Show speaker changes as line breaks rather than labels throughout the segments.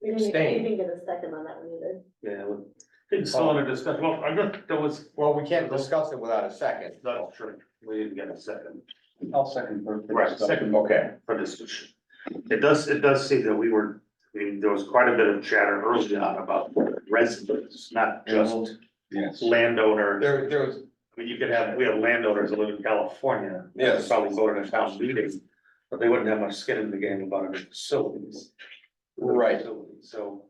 You didn't, you
Abstain.
didn't get a second on that one either.
Yeah. well, It's still under discussion, well, I guess there was,
Well, we can't discuss it without a second.
that's true, we didn't get a second
I'll second. for- for
Right,
discussion.
second.
Okay,
for discussion. It does, it does say that we were, I mean, there was quite a bit of chatter early on about residents, not just
Yes.
landowners.
there, there was,
I mean, you could have, we have landowners that live in California. that
Yes.
Probably go to the town meeting, but they wouldn't have much skin in the game about our facilities.
Right.
So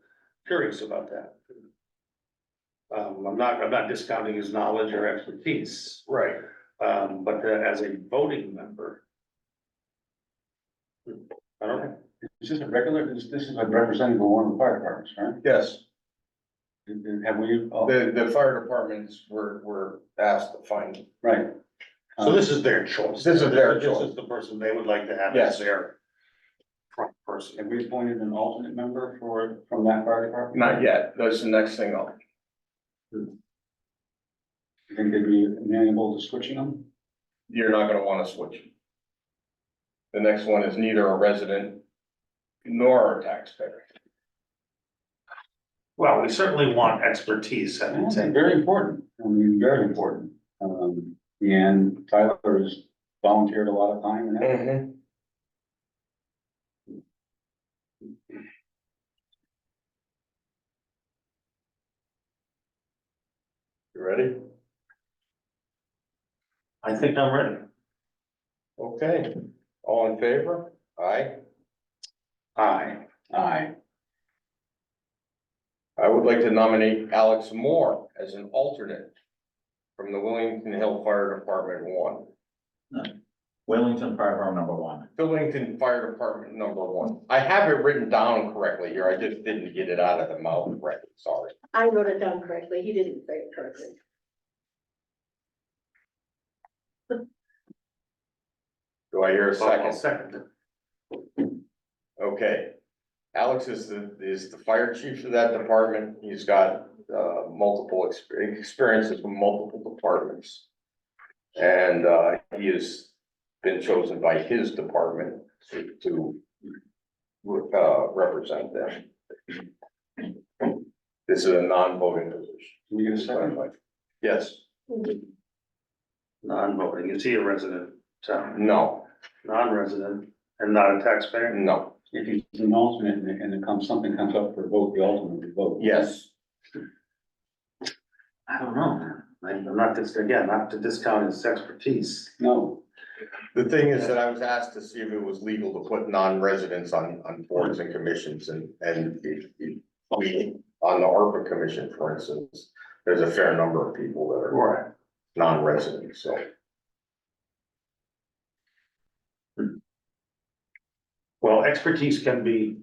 curious about that. Um, I'm not, I'm not discounting his knowledge or expertise,
right,
um, but uh, as a voting member. I don't know.
Is this a regular, this, this is a representative of one of the fire departments, right?
yes,
And- and Have we, oh,
the, the fire departments were, were asked to find,
right.
So this is their choice.
This is their
This
choice.
is the person they would like to have as
Yes.
their front person.
Um, Have we appointed an alternate member for, from that fire department?
not yet, that's the next thing up.
You think they'd be amenable to switching them?
You're not gonna wanna switch. The next one is neither a resident nor a taxpayer.
Well, we certainly want expertise
I
at the
think
table.
Very important, I mean, very important. Um, and Tyler has volunteered a lot of time and effort.
Mm-hmm. You ready?
I think I'm ready.
Okay, all in favor? Aye.
Aye.
Aye.
I would like to nominate Alex Moore as an alternate from the Willington Hill Fire Department one,
Wellington Fire Department number one.
Willington Fire Department number one. I have it written down correctly here. I just didn't get it out of the mouth correctly, sorry.
I wrote it down correctly, he didn't say it correctly.
Do I hear a
I'll
second?
Second.
Okay. Alex is the, is the fire chief for that department. He's got, uh, multiple exper- experiences from multiple departments. And, uh, he has been chosen by his department to, to, uh, represent them. This is a non-voting position.
Can we get a second?
Yes,
Non-voting, is he a resident, town,
no,
non-resident, and not a taxpayer?
no,
If he's an alternate and it- and it comes, something comes up for a vote, the alternate would vote.
yes,
I don't know, I- I'm not, dis- again, not to discount his expertise.
No,
The thing is that I was asked to see if it was legal to put non-residents on, on boards and commissions and, and it- it- we, on the ARPA commission, for instance, there's a fair number of people that are
Right.
non-residents, so.
Well, expertise can be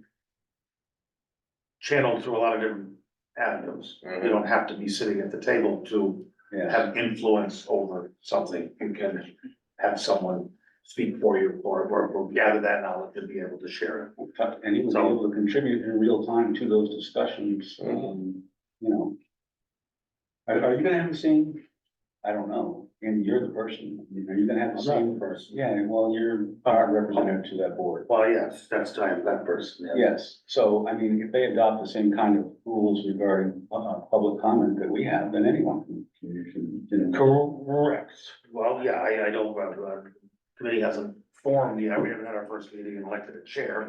channeled through a lot of different avenues. You
Mhm.
don't have to be sitting at the table to
yeah.
have influence over something. You can have someone speak for you or, or- or gather that knowledge and be able to share it.
And he was
So-
able to contribute in real time to those discussions, um, you know. Are, are you gonna have the same, I don't know, and you're the person, are you gonna have the same person? Yeah, well, you're our representative to that board.
Well, yes, that's time, that person.
Yes, so I mean, if they adopt the same kind of rules regarding, uh, public comment that we have, then anyone can- can, can, can.
Correct. Well, yeah, I, I don't, uh, the committee hasn't formed yet. We haven't had our first meeting and elected a chair,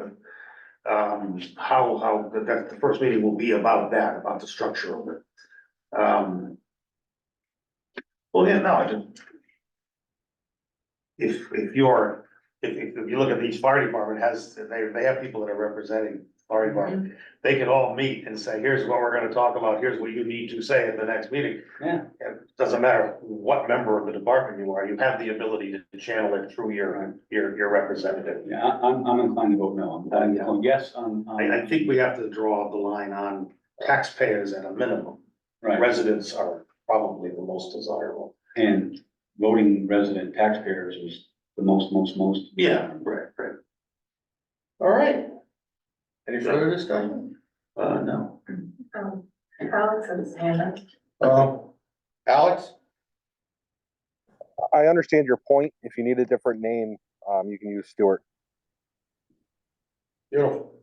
but um, how, how, that, that, the first meeting will be about that, about the structure of it. Um. Well, yeah, no, I didn't. If, if you're, if, if, if you look at each fire department has, they, they have people that are representing fire department. They could all meet and say, here's what we're gonna talk about, here's what you need to say at the next meeting.
Yeah,
It doesn't matter what member of the department you are, you have the ability to channel it through your, your, your representative.
yeah, I- I'm, I'm inclined to vote no, I'm,
Yeah.
I'm, yes, I'm,
I, I
i
think we have to draw the line on taxpayers at a minimum.
right,
Residents are probably the most desirable.
and voting resident taxpayers is the most, most, most.
Right, right.
All right. Any further discussion?
Uh, no.
Um, Alex and Hannah,
Um, Alex?
I understand your point. If you need a different name, um, you can use Stewart.
Beautiful.